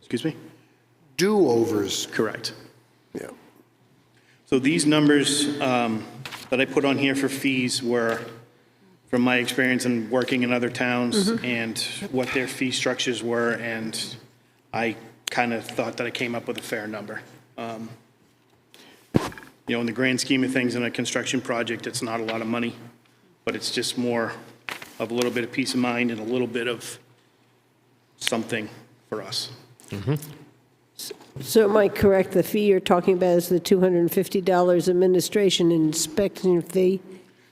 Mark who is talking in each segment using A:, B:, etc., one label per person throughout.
A: Excuse me?
B: do-overs.
A: Correct.
B: Yeah.
A: So these numbers um, that I put on here for fees were, from my experience in working in other towns and what their fee structures were, and I kind of thought that I came up with a fair number. Um, You know, in the grand scheme of things, in a construction project, it's not a lot of money, but it's just more of a little bit of peace of mind and a little bit of something for us.
C: So am I correct, the fee you're talking about is the $250 administration inspection fee?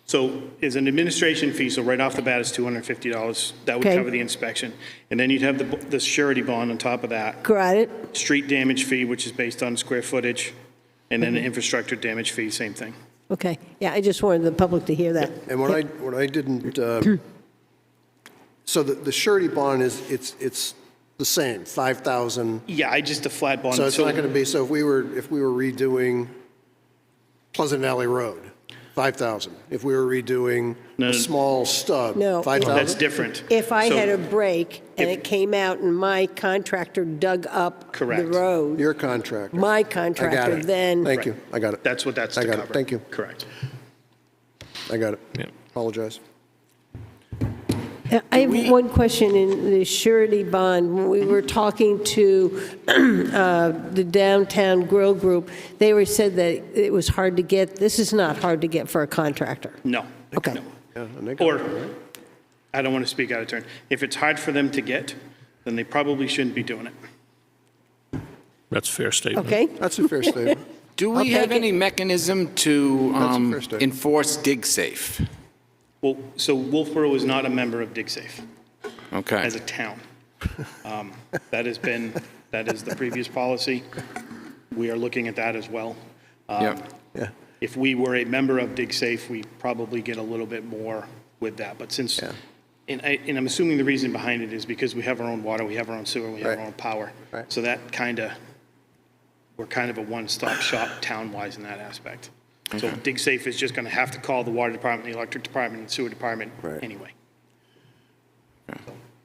A: So is an administration fee, so right off the bat it's $250. That would
C: Okay.
A: cover the inspection. And then you'd have the the surety bond on top of that,
C: Got it?
A: street damage fee, which is based on square footage, and
C: Mm-hmm.
A: then the infrastructure damage fee, same thing.
C: Okay, yeah, I just wanted the public to hear that.
B: And what I, what I didn't, uh, so the the surety bond is, it's, it's the same, 5,000.
A: Yeah, I just, a flat bond.
B: So it's not going to be, so if we were, if we were redoing Pleasant Valley Road, 5,000. If we were redoing
A: No, no.
B: a small stub,
C: No.
B: 5,000.
A: That's different.
C: If I
A: So-
C: had a break and
A: if-
C: it came out and my contractor dug up
A: Correct.
C: the road,
B: Your contractor.
C: my
B: I got
C: contractor
B: it.
C: then...
B: Thank you, I got it.
A: That's what that's to
B: I
A: cover.
B: got it. Thank you,
A: Correct.
B: I got it.
D: Yeah.
B: Apologize.
C: Uh, I have one question in the surety bond. When we were talking to uh, the Downtown Grill Group, they were said that it was hard to get, this is not hard to get for a contractor.
A: No.
C: Okay.
A: no.
B: and they got
A: Or, I don't want to speak out of turn. If it's hard for them to get, then they probably shouldn't be doing it.
D: That's a fair statement.
C: Okay?
B: That's a fair statement.
E: Do we
C: I'll
E: have
C: take
E: any mechanism to
B: That's a
E: um,
B: fair statement.
E: enforce DigSafe?
A: Well, so Wolfboro is not a member of DigSafe.
E: Okay.
A: as a town. Um, That has been, that is the previous policy. We are looking at that as well. Um,
E: Yep.
B: Yeah.
A: If we were a member of DigSafe, we probably get a little bit more with that. But since, and I, and I'm assuming the reason behind it is because we have our own water, we have our own sewer, we have our
B: Right.
A: own power.
B: Right.
A: So that kind of, we're kind of a one-stop shop town-wise in that aspect. So DigSafe is just going to have to call the water department, the electric department, and sewer department
B: Right.
A: anyway.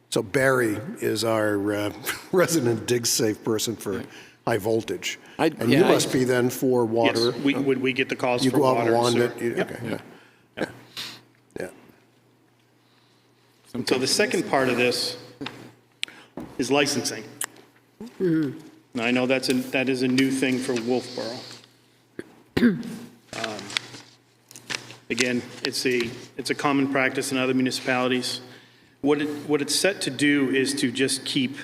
B: So Barry is our uh, resident dig safe person for high voltage.
E: I-
B: And you
E: yeah, I-
B: must be then for water.
A: Yes, we- would we get the calls
B: You
A: for
B: go
A: water?
B: out and
A: and
B: wand
A: sewer?
B: it. you-
A: Yep.
B: Okay, yeah. Yeah.
A: So the second part of this is licensing. Now, I know that's, a- that is a new thing for Wolfboro. Um, Again, it's a, it's a common practice in other municipalities. What it, what it's set to do is to just keep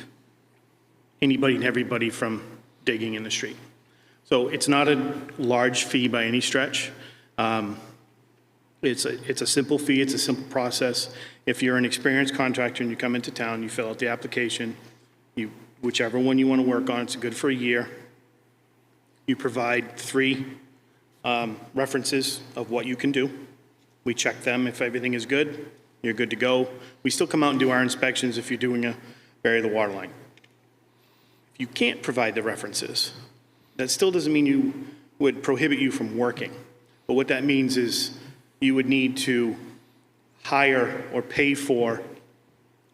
A: anybody and everybody from digging in the street. So it's not a large fee by any stretch. Um, it's a, it's a simple fee, it's a simple process. If you're an experienced contractor and you come into town, you fill out the application, you, whichever one you want to work on, it's good for a year. You provide three um, references of what you can do. We check them, if everything is good, you're good to go. We still come out and do our inspections if you're doing a bury the water line. If you can't provide the references, that still doesn't mean you would prohibit you from working. But what that means is you would need to hire or pay for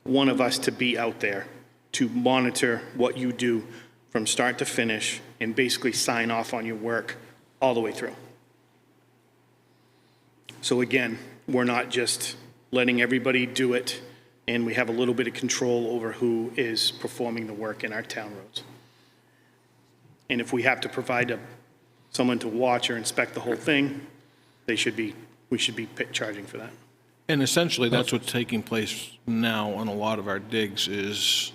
A: one of us to be out there to monitor what you do from start to finish and basically sign off on your work all the way through. So again, we're not just letting everybody do it, and we have a little bit of control over who is performing the work in our town roads. And if we have to provide a- someone to watch or inspect the whole thing, they should be, we should be pi- charging for that.
F: And essentially, that's what's taking place now on a lot of our digs is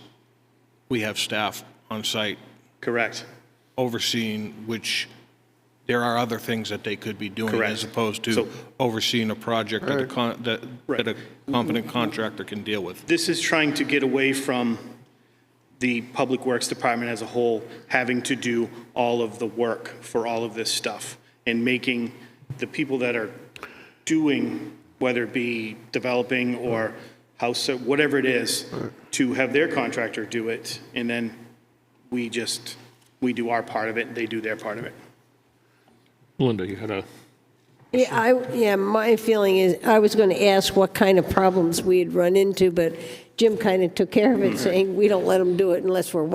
F: we have staff on site
A: Correct.
F: overseeing, which there are other things that they could be doing
A: Correct.
F: as opposed
A: So-
F: to overseeing a project that a con- that
A: Right.
F: that a competent contractor can deal with.
A: This is trying to get away from the Public Works Department as a whole having to do all of the work for all of this stuff and making the people that are doing, whether it be developing or house, whatever it is, to have their contractor do it. And then we just, we do our part of it, they do their part of it.
D: Linda, you had a,
C: Yeah, I, yeah, my feeling is, I was going to ask what kind of problems we had run into, but Jim kind of took care of it, saying, we don't let them do it unless we're